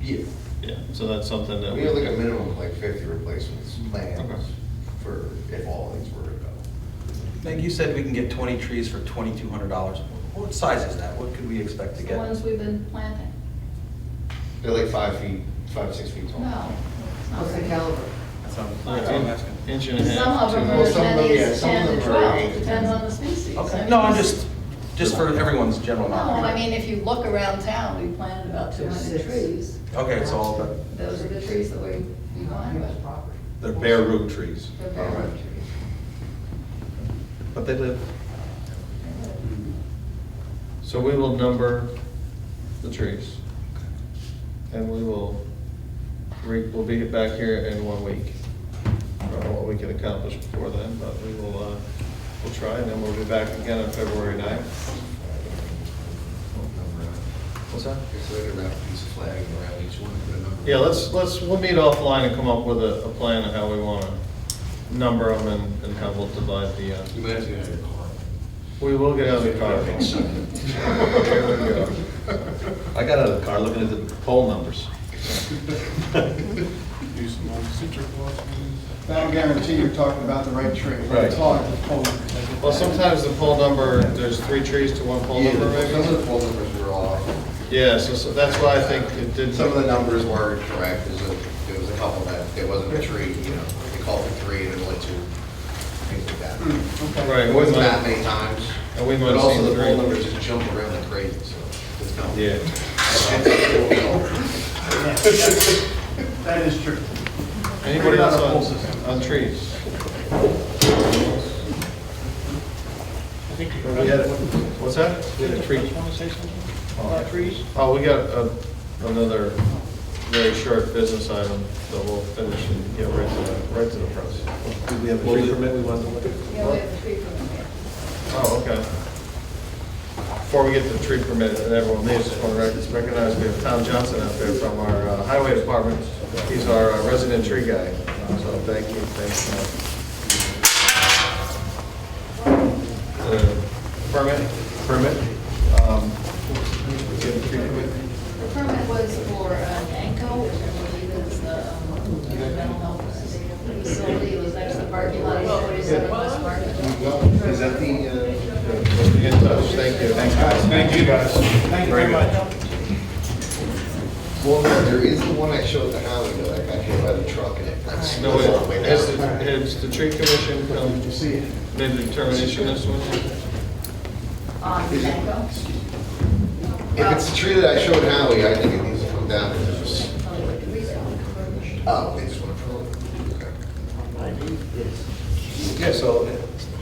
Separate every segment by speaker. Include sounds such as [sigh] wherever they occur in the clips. Speaker 1: year.
Speaker 2: Yeah, so that's something that.
Speaker 1: We had like a minimum of like fifty replacements planned
Speaker 2: Okay.
Speaker 1: for if all these were to go.
Speaker 3: Meg, you said we can get 20 trees for $2,200. What size is that? What could we expect to
Speaker 4: The
Speaker 3: get?
Speaker 4: ones we've been planting.
Speaker 1: They're like five feet, five, six feet tall.
Speaker 4: No. it's not
Speaker 5: What's the
Speaker 4: very-
Speaker 5: caliber?
Speaker 3: That's what I'm- that's what I'm
Speaker 2: Yeah,
Speaker 3: asking.
Speaker 2: Inch and a half.
Speaker 4: Some of
Speaker 2: two
Speaker 4: them are
Speaker 1: Well,
Speaker 4: as
Speaker 2: inches.
Speaker 1: some of
Speaker 4: many
Speaker 1: them- yeah,
Speaker 4: as
Speaker 1: some of
Speaker 4: ten to
Speaker 1: them are
Speaker 4: twelve,
Speaker 1: eight.
Speaker 4: depends on the species.
Speaker 3: Okay, no, I'm just, just for everyone's general
Speaker 4: No,
Speaker 3: knowledge.
Speaker 4: I mean, if you look around town, we planted about two
Speaker 5: There's
Speaker 4: hundred
Speaker 5: six.
Speaker 4: trees.
Speaker 3: Okay, it's all about-
Speaker 4: Those are the trees that we, we wanted,
Speaker 5: Private property.
Speaker 6: They're bare root trees.
Speaker 4: they're bare
Speaker 1: Alright.
Speaker 4: root trees.
Speaker 3: But they live.
Speaker 2: So we will number the trees. And we will, re- we'll be back here in one week. I don't know what we can accomplish before then, but we will, uh, we'll try, and then we'll be back again on February ninth. What's that?
Speaker 1: Because they're gonna wrap a piece of flag around each one, put a number.
Speaker 2: Yeah, let's, let's, we'll meet offline and come up with a, a plan of how we want to number them and, and how we'll divide the, uh,
Speaker 1: You might have to get out of your car.
Speaker 2: we will get out of the
Speaker 1: [laughs]
Speaker 2: car. There we go.
Speaker 6: I got out of the car looking at the poll
Speaker 1: [laughs]
Speaker 6: numbers.
Speaker 7: Use some old citric blossoms.
Speaker 8: That'll guarantee you're talking about the right tree.
Speaker 6: Right.
Speaker 8: It's hard to pull it.
Speaker 2: Well, sometimes the poll number, there's three trees to one poll
Speaker 1: Yeah,
Speaker 2: number,
Speaker 1: some of the
Speaker 2: maybe?
Speaker 1: poll numbers were off.
Speaker 2: Yeah, so, so that's why I think it did.
Speaker 1: Some of the numbers were correct, there's a, there was a couple that, there wasn't a tree, you know, they called for three, and there were like two, things like that.
Speaker 2: Right.
Speaker 1: It
Speaker 2: Hmm. we
Speaker 1: wasn't that
Speaker 2: might-
Speaker 1: many times.
Speaker 2: And we might have
Speaker 1: But
Speaker 2: seen
Speaker 1: also the
Speaker 2: three.
Speaker 1: poll numbers just jump around like crazy, so it's not.
Speaker 2: Yeah.
Speaker 8: That is true.
Speaker 2: Anybody
Speaker 8: We're not a poll
Speaker 2: else
Speaker 8: system.
Speaker 2: on, on trees?
Speaker 7: I think you
Speaker 2: We had, a- what's that? We had a tree.
Speaker 7: Want to say something about trees?
Speaker 2: Oh, we got a- another very short business item that we'll finish and get right to the, right to the press.
Speaker 6: Do we have a tree permit we want to look at?
Speaker 4: Yeah, we have a tree from here.
Speaker 2: Oh, okay. Before we get to the tree permit, and everyone leaves, just want to recognize we have Tom Johnson out there from our uh, highway department. He's our uh, resident tree guy, so thank you, thanks. Tom. The Permit? Permit. um, we Get the tree permit?
Speaker 4: The permit was for uh, ANCO, which I believe is the um, mental health facility, it was next to the parking lot, at 47 West Market.
Speaker 1: Is that the, uh,
Speaker 2: We'll be in touch, thank you. Thanks, guys.
Speaker 7: Thank you, guys. Thank you very much.
Speaker 1: well, no, there is the one I showed the highway, though, that got hit by the truck and it. that's-
Speaker 2: No,
Speaker 1: that's all the way
Speaker 2: wait, has, the-
Speaker 1: down.
Speaker 2: has the tree commission come,
Speaker 8: You see it.
Speaker 2: made the determination this one?
Speaker 4: On ANCO?
Speaker 1: If it's the tree that I showed Howie, I think it needs to come down. Oh, they just want to prune it. Okay.
Speaker 6: Yeah, so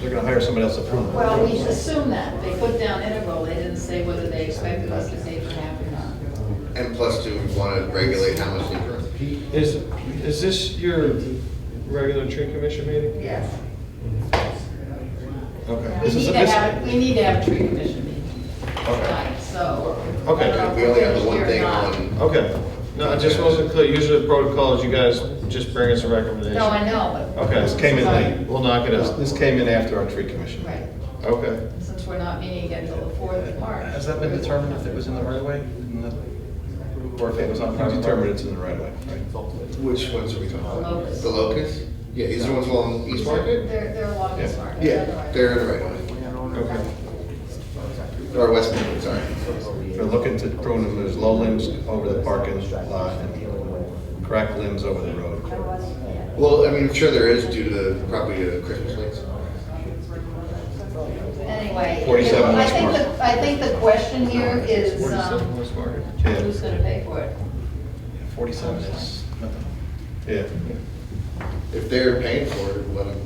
Speaker 6: they're gonna hire somebody else to prune them.
Speaker 4: Well, we assume that, they put down integral, they didn't say whether they expected us to say for half or not.
Speaker 1: And plus, do we want to regulate how much they prune?
Speaker 2: Is, is this your regular tree commission meeting?
Speaker 4: Yes.
Speaker 2: Okay.
Speaker 4: We
Speaker 2: This is-
Speaker 4: need to
Speaker 2: this-
Speaker 4: have, we need to have a tree commission meeting
Speaker 2: Okay,
Speaker 4: tonight, so.
Speaker 2: Okay.
Speaker 4: I don't know if
Speaker 1: We only have the one
Speaker 4: we're
Speaker 1: thing
Speaker 4: here or not.
Speaker 1: on.
Speaker 2: okay. No, I just wasn't clear. Usually the protocol is you guys just bring us a recommendation.
Speaker 4: No, I know, but.
Speaker 2: Okay.
Speaker 6: This came in late.
Speaker 2: We'll knock it out.
Speaker 6: This came in after our tree commission.
Speaker 4: Right,
Speaker 2: Okay.
Speaker 4: since we're not meeting again till the 4th of March.
Speaker 3: Has that been determined if it was in the right of way? In the- Or if it was on private
Speaker 6: Determined
Speaker 3: property?
Speaker 6: it's in the right of way, right?
Speaker 1: Which ones are we talking about?
Speaker 4: Locust.
Speaker 1: The locust? Yeah, these are the ones along East Market?
Speaker 4: They're, they're along this market.
Speaker 1: Yeah,
Speaker 4: otherwise-
Speaker 1: they're in the right one.
Speaker 2: Okay.
Speaker 1: Or West Market, sorry.
Speaker 6: They're looking to prune them, there's low limbs over the parking lot, and crack limbs over the road.
Speaker 1: Well, I mean, I'm sure there is due to probably the Christmas lights.
Speaker 4: Anyway.
Speaker 6: 47
Speaker 4: I
Speaker 6: West
Speaker 4: think
Speaker 6: Market.
Speaker 4: the- I think the question here is, um,
Speaker 2: Where's Margaret?
Speaker 4: who's gonna pay for it?
Speaker 3: 47 is nothing.
Speaker 6: Yeah.
Speaker 1: If they're paying for it, let them,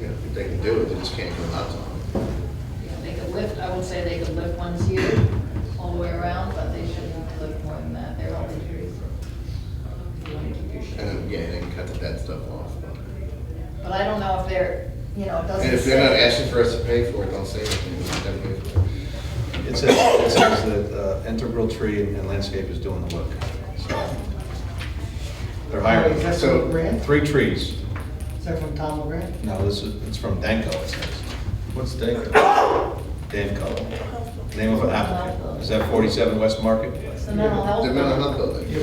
Speaker 1: you know, if they can do it, they just can't go out to them.
Speaker 4: You know, They could lift, I would say they could lift ones here all the way around, but they shouldn't lift more than that, they're only trees. You wanna keep your shade.
Speaker 1: And then, yeah, they can cut the dead stuff off.
Speaker 4: But I don't know if they're, you know, it doesn't say.
Speaker 1: And if they're not asking for us to pay for it, don't say anything. Let them pay for it.
Speaker 6: It says, it says that uh, integral tree and landscape is doing the work, so. They're hiring.
Speaker 8: Is that
Speaker 1: So,
Speaker 8: from Grant?
Speaker 6: Three trees.
Speaker 8: Is that from Tom Grant?
Speaker 6: No, this is, it's from Danco, it says.
Speaker 2: What's Dacre?
Speaker 6: Danco. Name of an applicant. Is that 47 West Market?
Speaker 4: It's the mental health.
Speaker 1: The mental health building.